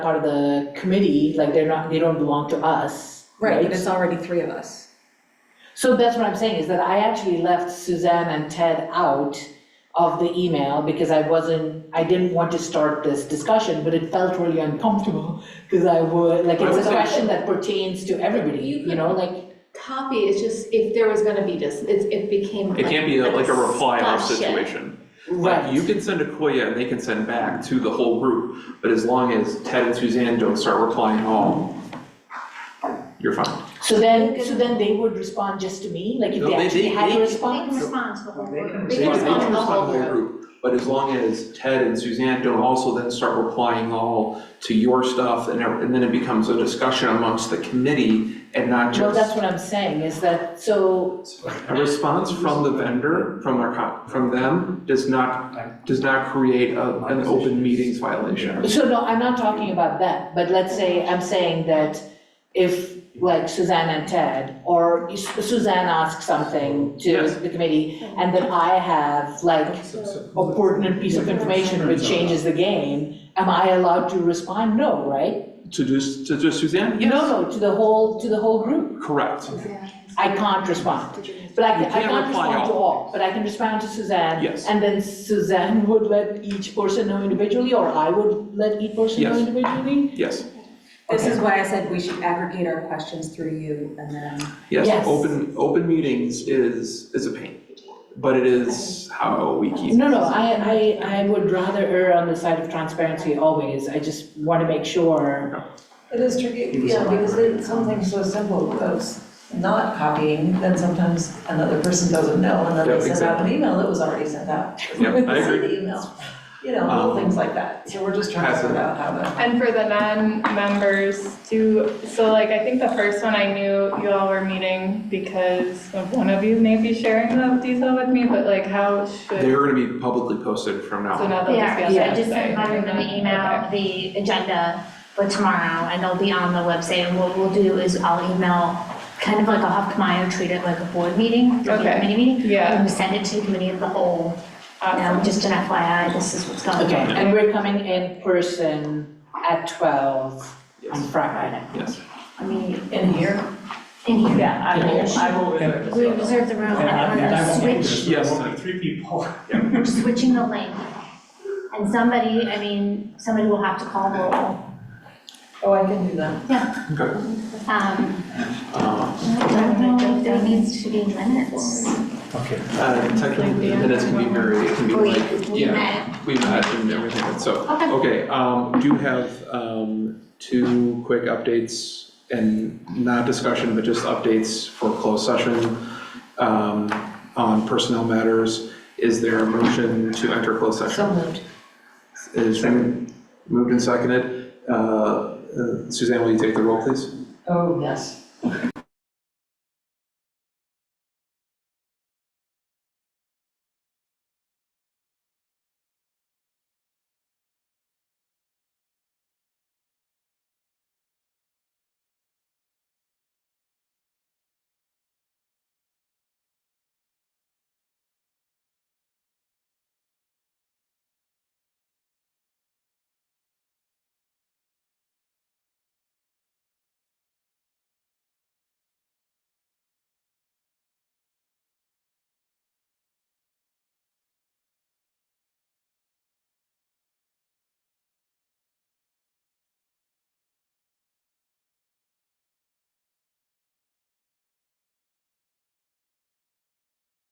part of the committee, like they're not, they don't belong to us, Right, right? but it's already three of us. So that's what I'm saying, is that I actually left Suzanne and Ted out of the email because I wasn't, I didn't want to start this discussion, but it felt really uncomfortable because I would, like, I it's would a say- question that pertains to everybody, You you know, like, Copy, it's just if there was gonna be this, it, it became like. It can't be like a reply all discussion. situation. Like, you right, can send a Koya and they can send back to the whole group, but as long as Ted and Suzanne don't start replying all, you're fine. so then, so then they would respond just to me, like, if No, they they- actually they- had they- a They can response? respond to the whole group. They can respond to the respond to whole the whole group. group, but as long as Ted and Suzanne don't also then start replying all to your stuff and ev- and then it becomes a discussion amongst the committee and not Well, that's just what I'm saying, is that, so, a response from the vendor, from our, co- from them, does not, does not create a, an open meetings violation. so no, I'm not talking about that, but let's say, I'm saying that if, like, Suzanne and Ted, or Suzanne asks something to Yes. the committee, and then I have, like, a pertinent piece of information which changes the game, am I allowed to respond? No, right? To just, to just Suzanne? Yes. No, no, to the whole, to the whole group, Correct. I can't respond. But I You can, I can't can't reply respond to all. all, but I can respond to Suzanne. Yes. And then Suzanne would let each person know individually, or I would let each person know Yes. individually? Yes, This is why I said we should aggregate our questions through you and then. Yes. yes, open, open meetings is, is a pain, but it is how we keep. No, no, I, I, I would rather err on the side of transparency always, I just want to make sure. It is tricky, yeah, because it's something so simple as not copying, then sometimes another person doesn't know, and then Yeah, they send out an exactly. email that was already sent out. Yeah, I Send agree. the email, you know, little Um, things like that, so we're just trying to Pass it. figure out how to. And for the non-members, do, so like, I think the first one I knew you all were meeting because of one of you maybe sharing the detail with me, but like, how should, They're gonna be publicly posted from now so on. now they'll just They be on are, so the I just sent website. Myron an email, the agenda for tomorrow, and they'll be on the website, and what we'll do is I'll email, kind of like I'll have Kamaya treat it like a board meeting, like Okay. a committee meeting, Yeah, and we send it to the committee of the whole, um, awesome. just an FYI, this is what's going Okay, on. and we're coming in person at twelve on Yes, Friday. yes. I mean, In here, in here, yeah, I will, I will. reserve this we photo. reserve the room, And I and mean, I we're won't be switch there, so there won't be three people. we're switching the link. And somebody, I mean, somebody will have to call roll. Oh, I can do that. Okay. Um, Uh, I don't know if there needs to be minutes. Okay. uh, Technically, the minutes can be very, it can be We- like, we yeah, met. we met and everything, so. Okay. Okay, um, do have, um, two quick updates and not discussion, but just updates for closed session. Um, on personnel matters, is there a motion to enter closed session? So moved. Is moved and seconded. Uh, uh, Suzanne, will you take the roll, please? Oh, yes.